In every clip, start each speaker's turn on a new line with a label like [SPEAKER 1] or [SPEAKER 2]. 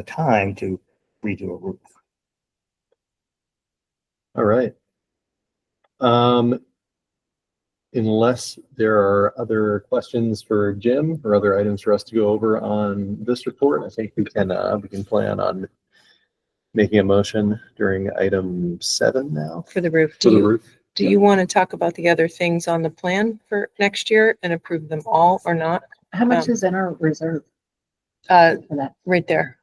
[SPEAKER 1] the time to redo a roof.
[SPEAKER 2] All right. Um, unless there are other questions for Jim or other items for us to go over on this report, I think we can, uh, we can plan on making a motion during item seven now.
[SPEAKER 3] for the roof.
[SPEAKER 2] For
[SPEAKER 3] Do
[SPEAKER 2] the
[SPEAKER 3] you,
[SPEAKER 2] roof.
[SPEAKER 3] do you want to talk about the other things on the plan for next year and approve them all or not?
[SPEAKER 4] How much
[SPEAKER 3] Um,
[SPEAKER 4] is in our reserve
[SPEAKER 3] Uh,
[SPEAKER 4] for that?
[SPEAKER 3] right there.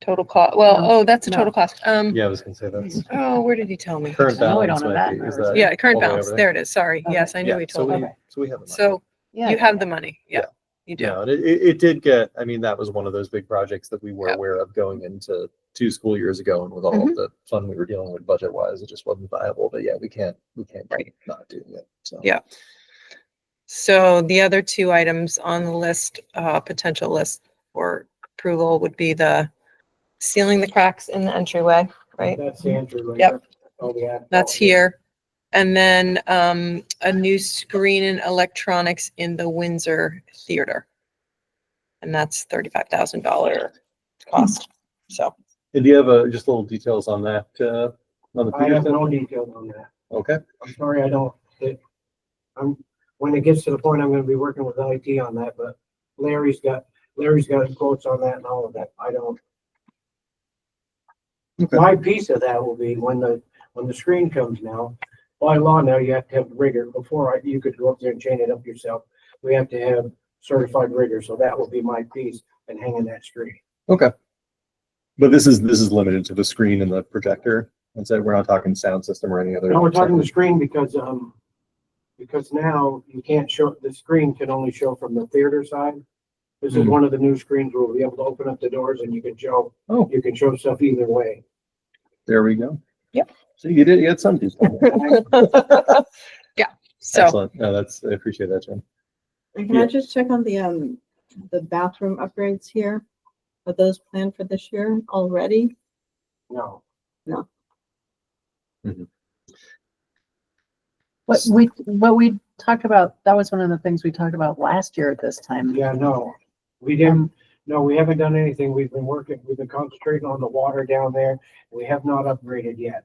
[SPEAKER 3] Total cost, well,
[SPEAKER 4] No,
[SPEAKER 3] oh, that's a
[SPEAKER 4] no.
[SPEAKER 3] total cost. Um,
[SPEAKER 2] Yeah, I was gonna say that's
[SPEAKER 3] oh, where did he tell me?
[SPEAKER 2] current
[SPEAKER 4] No, we
[SPEAKER 2] balance.
[SPEAKER 4] don't know
[SPEAKER 2] might
[SPEAKER 4] that
[SPEAKER 2] be- is
[SPEAKER 4] number.
[SPEAKER 2] that-
[SPEAKER 3] Yeah, current
[SPEAKER 2] all the way
[SPEAKER 3] balance.
[SPEAKER 2] over
[SPEAKER 3] There it is. Sorry.
[SPEAKER 4] Okay.
[SPEAKER 3] Yes, I knew
[SPEAKER 2] Yeah,
[SPEAKER 3] he
[SPEAKER 2] so
[SPEAKER 3] told me.
[SPEAKER 2] we,
[SPEAKER 4] Okay.
[SPEAKER 2] so we have. the money.
[SPEAKER 3] So
[SPEAKER 4] Yeah,
[SPEAKER 3] you
[SPEAKER 4] yeah,
[SPEAKER 3] have the
[SPEAKER 4] yeah.
[SPEAKER 3] money. Yeah. You do.
[SPEAKER 2] Yeah, and it, it, it did get, I mean, that was one of those big projects that we were
[SPEAKER 3] Yeah. Mm-hmm.
[SPEAKER 2] aware of going into two school years ago and with all of the fun we were dealing with budget wise, it just wasn't viable, but yeah, we can't, we can't
[SPEAKER 3] Right.
[SPEAKER 2] keep not do it, so.
[SPEAKER 3] Yeah. So the other two items on the list, uh, potential list for approval would be the sealing the cracks in the entryway, right?
[SPEAKER 5] That's the entryway.
[SPEAKER 3] Yep.
[SPEAKER 5] Oh, yeah.
[SPEAKER 3] That's here. And then, um, a new screen and electronics in the Windsor Theater. And that's thirty-five thousand dollar cost. So,
[SPEAKER 2] And do you have, uh, just little details on that, uh, on the
[SPEAKER 5] I have
[SPEAKER 2] Peterson?
[SPEAKER 5] no details on that.
[SPEAKER 2] Okay,
[SPEAKER 5] I'm sorry, I don't, it, I'm, when it gets to the point, I'm gonna be working with IT on that, but Larry's got, Larry's got quotes on that and all of that. I don't.
[SPEAKER 2] Okay.
[SPEAKER 5] My piece of that will be when the, when the screen comes now, by law now, you have to have rigor. Before I, you could go up there and chain it up yourself. We have to have certified rigor, so that will be my piece in hanging that screen.
[SPEAKER 2] but this is, this is limited to the screen and the projector, and so we're not talking sound system or any other.
[SPEAKER 5] No, we're talking the screen because, um, because now you can't show, the screen can only show from the theater side. This is
[SPEAKER 2] Mhm.
[SPEAKER 5] one of the new screens where we'll be able to open up the doors and you can show,
[SPEAKER 2] Oh,
[SPEAKER 5] you can show stuff either way.
[SPEAKER 2] there we go.
[SPEAKER 3] Yep.
[SPEAKER 2] So you did, you had some detail.
[SPEAKER 3] so,
[SPEAKER 2] Excellent, no, that's, I appreciate that, Jim.
[SPEAKER 6] And Can
[SPEAKER 2] Yeah.
[SPEAKER 6] I just check on the, um, the bathroom upgrades here? Are those planned for this year already?
[SPEAKER 5] No.
[SPEAKER 4] What we, what we talked about, that was one of the things we talked about last year at this time.
[SPEAKER 5] Yeah, no. We didn't, no, we haven't done anything. We've been working, we've been concentrating on the water down there. We have not upgraded yet.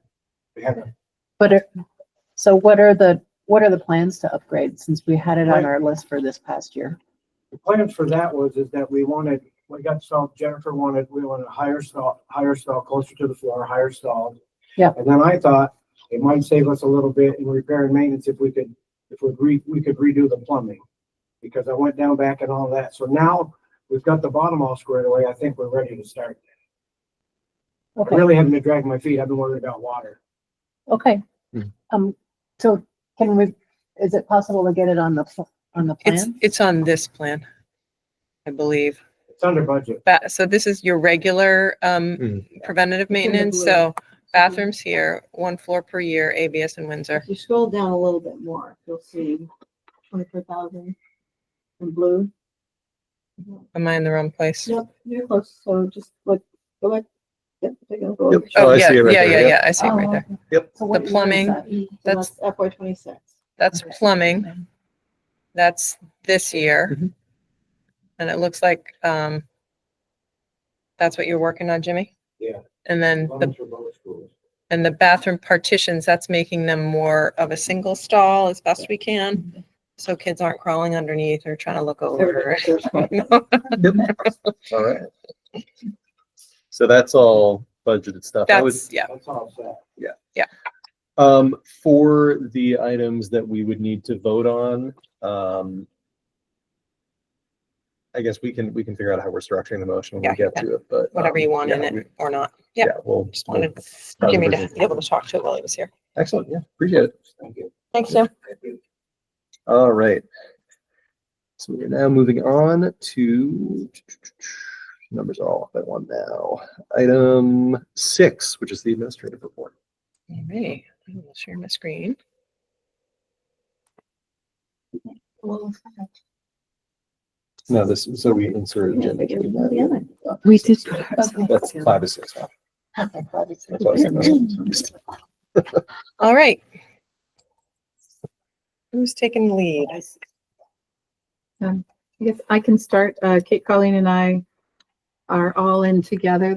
[SPEAKER 5] We haven't.
[SPEAKER 4] But it, so what are the, what are the plans to upgrade since we had it on our list for this past year?
[SPEAKER 5] The plan for that was is that we wanted, we got stalled, Jennifer wanted, we wanted a higher stall, higher stall closer to the floor, higher stall.
[SPEAKER 4] Yeah.
[SPEAKER 5] And then I thought it might save us a little bit in repair and maintenance if we could, if we re, we could redo the plumbing. Because I went down back and all that. So now we've got the bottom all squared away. I think we're ready to start. I
[SPEAKER 4] Okay,
[SPEAKER 5] really haven't been dragging my feet. I've been worried about water.
[SPEAKER 4] okay.
[SPEAKER 3] Hmm.
[SPEAKER 2] Mhm.
[SPEAKER 4] Um, so can we, is it possible to get it on the, pl- on the
[SPEAKER 3] it's,
[SPEAKER 4] plan?
[SPEAKER 3] it's on this plan, I believe.
[SPEAKER 5] It's under budget.
[SPEAKER 3] Ba- so this is your regular, um,
[SPEAKER 2] Mm.
[SPEAKER 3] preventative maintenance.
[SPEAKER 6] blue.
[SPEAKER 3] So
[SPEAKER 4] Mm-hmm.
[SPEAKER 3] bathrooms here, one floor per year, ABS in Windsor.
[SPEAKER 6] If you scroll down a little bit more, you'll see twenty-four thousand in blue.
[SPEAKER 3] Am I in the wrong place?
[SPEAKER 2] Oh,
[SPEAKER 6] Yep, you're close, so just look, go back. Yep, take a go.
[SPEAKER 2] Yep. Oh,
[SPEAKER 3] Oh,
[SPEAKER 2] I
[SPEAKER 3] yeah,
[SPEAKER 2] see it right
[SPEAKER 3] yeah,
[SPEAKER 2] there,
[SPEAKER 3] yeah,
[SPEAKER 2] yep.
[SPEAKER 3] yeah. I see it right
[SPEAKER 4] Oh,
[SPEAKER 3] there.
[SPEAKER 4] okay.
[SPEAKER 2] Yep.
[SPEAKER 4] So what year is
[SPEAKER 3] plumbing,
[SPEAKER 4] that?
[SPEAKER 6] So
[SPEAKER 3] That's-
[SPEAKER 6] That's FY twenty-six.
[SPEAKER 3] That's
[SPEAKER 4] Okay.
[SPEAKER 3] plumbing. That's this year.
[SPEAKER 2] Mhm.
[SPEAKER 3] And it looks like, um, that's what you're working on, Jimmy?
[SPEAKER 5] Yeah. Um,
[SPEAKER 3] And then, the
[SPEAKER 5] Plumbing's for both schools.
[SPEAKER 3] and the bathroom partitions, that's making them more of a single stall as best we can. So kids aren't crawling underneath or trying to look over.
[SPEAKER 2] All right. So that's all budgeted stuff. I was,
[SPEAKER 3] That's, yeah,
[SPEAKER 5] That's all set.
[SPEAKER 2] Um, for the items that we would need to vote on, um. I guess we can, we can figure out how we're structuring the motion when we
[SPEAKER 3] Yeah,
[SPEAKER 2] get to it, but.
[SPEAKER 3] whatever
[SPEAKER 2] um,
[SPEAKER 3] you want in
[SPEAKER 2] yeah, we-
[SPEAKER 3] it or not. Yeah,
[SPEAKER 2] Yeah, we'll.
[SPEAKER 3] just wanted
[SPEAKER 2] we'll-
[SPEAKER 3] Jimmy to be able to talk to it while he was here.
[SPEAKER 2] Excellent, yeah, appreciate it.
[SPEAKER 5] Thank you.
[SPEAKER 3] Thanks, Jim.
[SPEAKER 2] All right. So we're now moving on to numbers are all off by one now. Item six, which is the administrative report.
[SPEAKER 3] All right, I will share my screen.
[SPEAKER 2] No, this, so we inserted. Jen into that.
[SPEAKER 4] We did.
[SPEAKER 2] That's five to six. now. That's what I was thinking.
[SPEAKER 3] All right. Who's taking the lead?
[SPEAKER 6] I guess I can start, uh, Kate, Colleen and I are all in together